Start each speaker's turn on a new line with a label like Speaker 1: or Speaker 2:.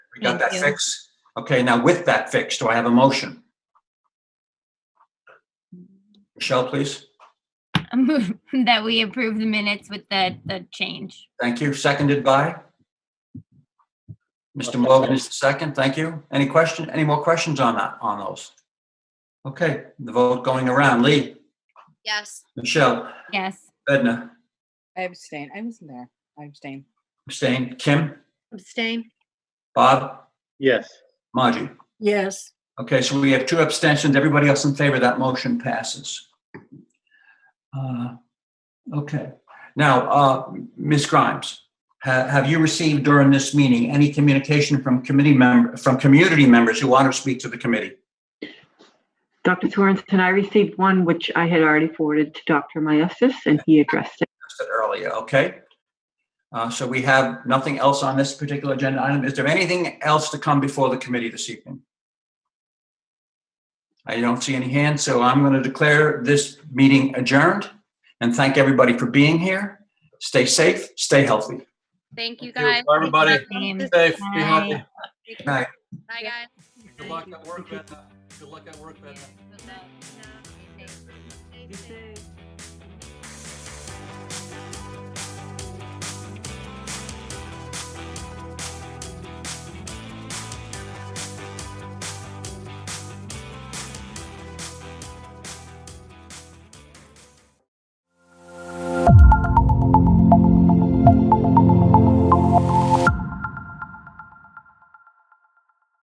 Speaker 1: We got that
Speaker 2: Thank you.
Speaker 1: fixed? Okay, now with that fix, do I have a motion? Michelle, please.
Speaker 2: I move that we approve the minutes with the, the change.
Speaker 1: Thank you. Seconded by? Mr. Morgan is the second. Thank you. Any question, any more questions on that, on those? Okay, the vote going around. Lee,
Speaker 3: Yes.
Speaker 1: Michelle,
Speaker 2: Yes.
Speaker 1: Edna,
Speaker 4: I abstain. I wasn't there. I abstain.
Speaker 1: abstain, Kim,
Speaker 3: Abstain?
Speaker 1: Bob,
Speaker 5: yes,
Speaker 1: Margie.
Speaker 6: yes,
Speaker 1: Okay, so we have two abstentions. Everybody else in favor, that motion passes. Uh, Okay, now, uh, Ms. Grimes, ha- have you received during this meeting any communication from committee member, from community members who want to speak to the committee?
Speaker 7: Dr. Sorensen, I received one which I had already forwarded to Dr. Meyesis, and he addressed it.
Speaker 1: I said Earlier, okay? Uh, So we have nothing else on this particular agenda item. Is there anything else to come before the committee this evening? I don't see any hands, so I'm going to declare this meeting adjourned and thank everybody for being here. Stay safe, stay healthy.
Speaker 3: Thank you,
Speaker 5: Thank you.
Speaker 3: guys.
Speaker 5: Bye, everybody.
Speaker 2: Same.
Speaker 3: Bye,
Speaker 5: safe, be healthy.
Speaker 1: Night.
Speaker 3: guys.
Speaker 5: Good luck at work, Edna. Good luck at work, Edna.
Speaker 3: Good night. Stay safe.
Speaker 7: Yes, sir.